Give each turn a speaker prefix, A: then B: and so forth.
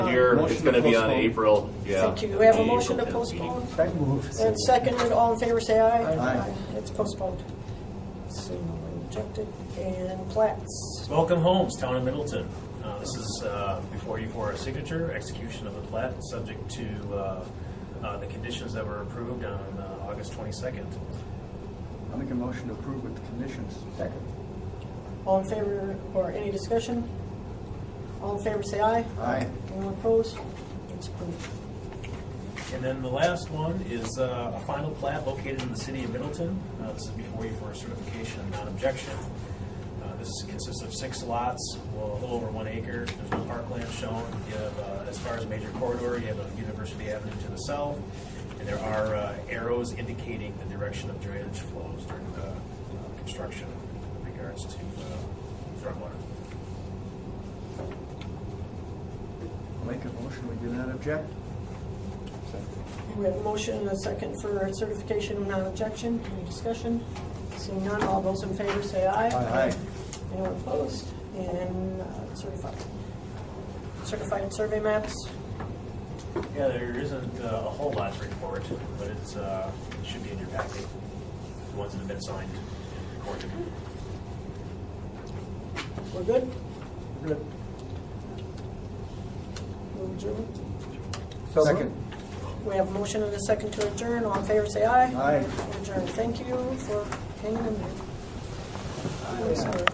A: year.
B: Motion
A: It's gonna be on
B: to postpone.
A: April, yeah.
C: Thank you. We have a
A: April
C: motion to
A: 10th meeting.
C: postpone.
D: Second move.
C: And seconded, all in favor, say aye.
B: Aye.
C: It's postponed. So rejected. And plats.
E: Welcome homes, town of Middleton. Uh, This is uh, before you for a signature, execution of the plat, subject to uh, uh, the conditions that were approved on uh, August 22nd.
B: I'll make a motion to approve with the conditions.
D: Second.
C: All in favor, or any discussion? All in favor, say aye.
B: Aye.
C: Anyone opposed? It's approved.
E: And then the last one is uh, a final plat located in the city of Middleton. Uh, This is before you for a certification of non-objection. Uh, This consists of six lots, well, a little over one acre. There's no parkland shown. You have, uh, as far as major corridor, you have a University Avenue to the south, and there are uh, arrows indicating the direction of drainage flows during the uh, construction in regards to uh, stormwater.
B: I'll make a motion, we do not object.
C: We have a motion and a second for certification of non-objection. Any discussion? Seeing none, all those in favor say aye.
B: Aye.
C: Anyone opposed? And uh, certified. Certified survey maps.
E: Yeah, there isn't uh, a whole lot to report, but it's, uh, it should be in your packet, the ones that have been signed and recorded.
C: We're good?
B: Good.
C: We'll adjourn.
D: So
B: Second.
C: We have a motion and a second to adjourn. All in favor, say aye.
B: Aye.
C: Adjourn. Thank you for hanging in there. I'm sorry.